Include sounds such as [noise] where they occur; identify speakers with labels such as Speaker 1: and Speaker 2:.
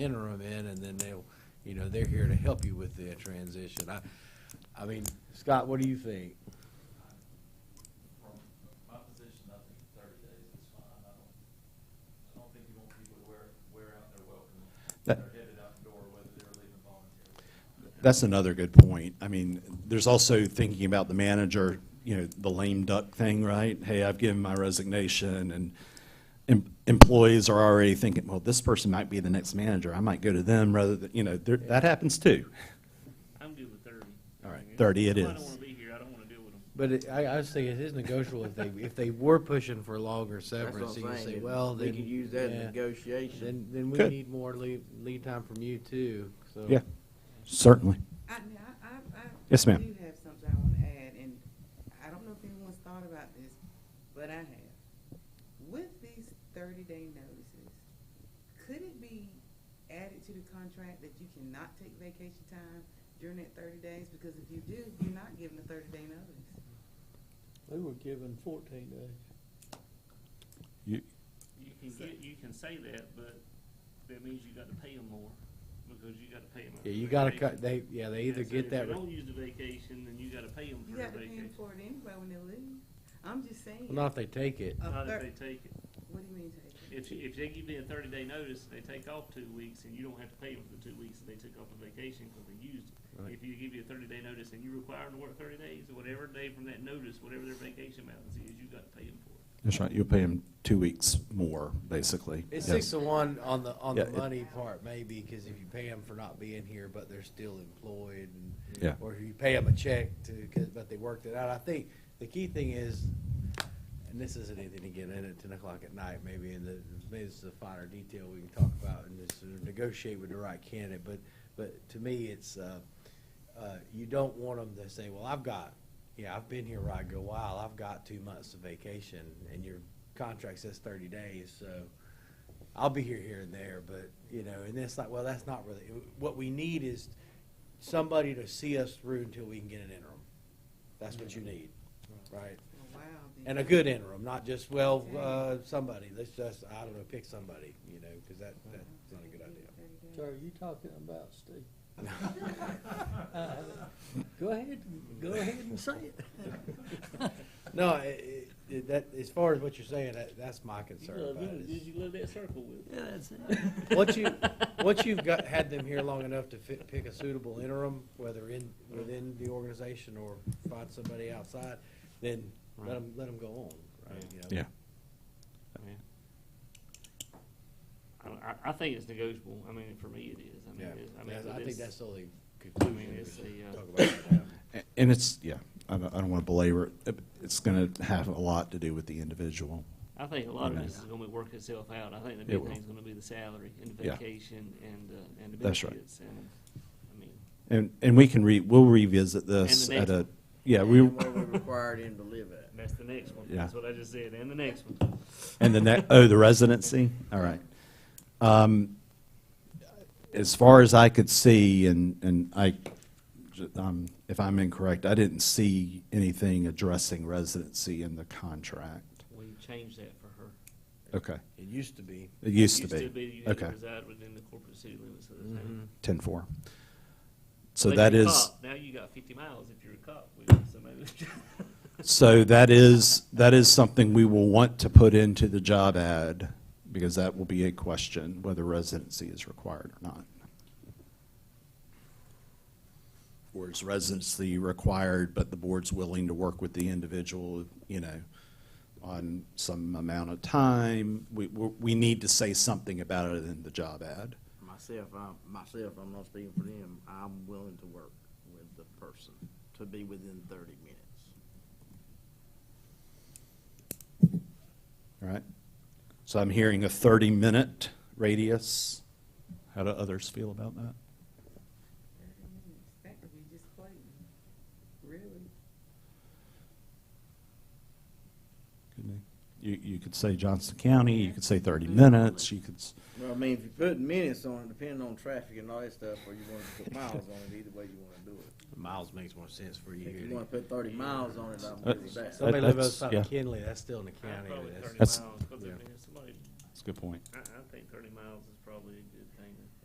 Speaker 1: interim in, and then they'll, you know, they're here to help you with their transition. I, I mean, Scott, what do you think?
Speaker 2: From my position, I think thirty days is fine. I don't, I don't think you want people to wear, wear out their welcome. when
Speaker 3: That-
Speaker 2: They're headed out the door, whether they're leaving voluntarily.
Speaker 3: That's another good point. I mean, there's also thinking about the manager, you know, the lame duck thing, right? Hey, I've given my resignation, and em- employees are already thinking, well, this person might be the next manager. I might go to them rather than, you know, there- that happens too.
Speaker 4: I'm good with thirty.
Speaker 3: All right, 30 it
Speaker 4: If I
Speaker 3: is.
Speaker 4: don't wanna be here, I don't wanna deal with them.
Speaker 1: But it- I, I was thinking, it is negotiable if they, if they were pushing for longer
Speaker 5: That's what
Speaker 1: severance, you
Speaker 5: I'm
Speaker 1: could
Speaker 5: saying.
Speaker 1: say,
Speaker 5: is
Speaker 1: well, then.
Speaker 5: We could use that in
Speaker 1: yeah,
Speaker 5: negotiation.
Speaker 1: Then, then we
Speaker 3: Could.
Speaker 1: need more lead, lead time from you too, so.
Speaker 3: Yeah, certainly.
Speaker 6: I, I, I. I-
Speaker 3: Yes, ma'am.
Speaker 6: I do have something I want to add, and I don't know if anyone's thought about this, but I have. With these thirty-day notices, could it be added to the contract that you cannot take vacation time during that thirty days? Because if you do, you're not given a thirty-day notice.
Speaker 7: They were given fourteen days.
Speaker 3: You-
Speaker 4: You can get, you can say that, but that means you gotta pay them more, because you gotta pay them.
Speaker 1: Yeah, you gotta cut, they, yeah, they either get that.
Speaker 4: If you don't use the vacation, then you gotta pay them for
Speaker 6: You
Speaker 4: their
Speaker 6: got to pay 'em
Speaker 4: vacation,
Speaker 6: for it anyway when they leave. I'm just saying.
Speaker 1: Well, not if they take it.
Speaker 6: a
Speaker 4: not if
Speaker 6: thir-
Speaker 4: they take it.
Speaker 6: What do you mean take?
Speaker 4: If, you- if they give you a thirty day notice, they take off two weeks, and you don't have to pay them for the two weeks that they took off the vacation, cause they used it.
Speaker 1: Right.
Speaker 4: If you give you a thirty day notice and you require them to work thirty days, whatever day from that notice, whatever their vacation balance is, you gotta pay them for it.
Speaker 3: That's right, you'll pay them two weeks more, basically.
Speaker 1: It's
Speaker 3: Yes.
Speaker 1: six to one on the, on the
Speaker 3: Yeah, it-
Speaker 1: money part maybe, cause if you pay them for not being here, but they're still employed and.
Speaker 3: Yeah.
Speaker 1: Or if you pay them a check to, 'cause- but they worked it out. I think the key thing is, and this isn't anything to get in at ten o'clock at night, maybe in the, maybe this is a finer detail we can talk about and just sort of negotiate with the right candidate, but, but to me, it's, uh, uh, you don't want them to say, well, I've got, yeah, I've been here right good while, I've got two months of vacation, and your contract says thirty days, so I'll be here, here and there, but, you know, and it's like, well, that's not really, what we need is somebody to see us through until we can get an interim. That's what you
Speaker 4: Mm-hmm.
Speaker 1: need, right?
Speaker 6: Well, Wow. then.
Speaker 1: And a good interim, not just, well, uh, somebody, let's just, I don't know, pick somebody, you know, because that, that's not a good idea.
Speaker 6: 30 days.
Speaker 7: So are you talking about
Speaker 5: [laughs]
Speaker 7: Steve? Uh, Go ahead, go ahead and say it.
Speaker 1: No, i- i- i- that, as far as what you're saying, that, that's my
Speaker 4: You
Speaker 1: concern
Speaker 4: love
Speaker 1: about
Speaker 4: them,
Speaker 1: it.
Speaker 4: did
Speaker 1: is [laughs]
Speaker 4: you love that circle with?
Speaker 7: Yeah,
Speaker 4: [laughs]
Speaker 7: that's it.
Speaker 1: Once you, once you've got, had them here long enough to fi- pick a suitable interim, whether in, within the organization or find somebody outside, then let them, let them go on, right? you know?
Speaker 3: Yeah.
Speaker 4: I, I- I think it's negotiable. I mean, for me, it is. I mean,
Speaker 1: Yeah,
Speaker 4: it's- I mean,
Speaker 1: That's-
Speaker 4: but
Speaker 1: I think
Speaker 4: it's-
Speaker 1: that's the only
Speaker 4: I mean,
Speaker 1: conclusion we
Speaker 4: it's the,
Speaker 1: should
Speaker 4: uh,
Speaker 1: talk about right now.
Speaker 3: A- And it's, yeah, I don't, I don't want to belabor it. It's going to have a lot to do with the individual.
Speaker 4: I think a lot of
Speaker 3: Okay.
Speaker 4: this is gonna be work itself out. I think the
Speaker 3: It
Speaker 4: big
Speaker 3: will.
Speaker 4: thing's gonna be the salary and the
Speaker 3: Yeah.
Speaker 4: vacation and, uh, and the
Speaker 3: That's right.
Speaker 4: benefits and, I mean,
Speaker 3: And, and we can re, we'll revisit this
Speaker 4: And the
Speaker 3: at
Speaker 4: next
Speaker 3: a,
Speaker 4: one.
Speaker 3: yeah,
Speaker 5: And
Speaker 3: we,
Speaker 5: Where we required him to live at.
Speaker 4: that's the next one.
Speaker 3: Yeah.
Speaker 4: That's what I just said, and the next one.
Speaker 3: and the ne, oh, the residency? All right. Um, As far as I could see, and, and I, j- um, if I'm incorrect, I didn't see anything addressing residency in the contract.
Speaker 4: We changed that for her.
Speaker 3: Okay,
Speaker 1: [coughs] It used to be.
Speaker 3: it used to
Speaker 4: Used to be
Speaker 3: be.
Speaker 4: you had to
Speaker 3: Okay,
Speaker 4: reside within the corporate city limits of the town.
Speaker 3: ten-four. So
Speaker 4: But
Speaker 3: that
Speaker 4: you're a
Speaker 3: is.
Speaker 4: cop. Now you got fifty miles if you're a cop. We- somebody- [laughs]
Speaker 3: [laughs] So that is, that is something we will want to put into the job ad, because that will be a question, whether residency is required or not. Or is residency required, but the board's willing to work with the individual, you know, on some amount of time? We, we we need to say something about it in the job ad.
Speaker 5: Myself, I'm, myself, I'm not speaking for them, I'm willing to work with the person to be within thirty minutes.
Speaker 3: All right. So I'm hearing a 30-minute radius. How do others feel about that?
Speaker 6: Thirty minutes. That could be just plain, really.
Speaker 3: Couldn't they? You, you could say Johnson County, you could say 30
Speaker 4: Mhm.
Speaker 3: minutes, you could, s-
Speaker 5: Well, I mean, if you put minutes on it, depending on traffic and all that stuff, or you wanna put miles on it, either way you wanna do it.
Speaker 1: Miles makes more sense for you.
Speaker 5: If
Speaker 1: here
Speaker 5: you
Speaker 1: to-
Speaker 5: wanna put thirty miles on it, I'm good with that.
Speaker 1: Somebody live
Speaker 3: that's-
Speaker 1: outside of
Speaker 3: yeah.
Speaker 1: Kinley, that's still in the county.
Speaker 4: Probably thirty
Speaker 1: that's-
Speaker 4: miles,
Speaker 3: That's-
Speaker 4: 'cause I
Speaker 1: yeah.
Speaker 4: mean, somebody
Speaker 3: that's a good point.
Speaker 4: I, I think thirty miles is probably a good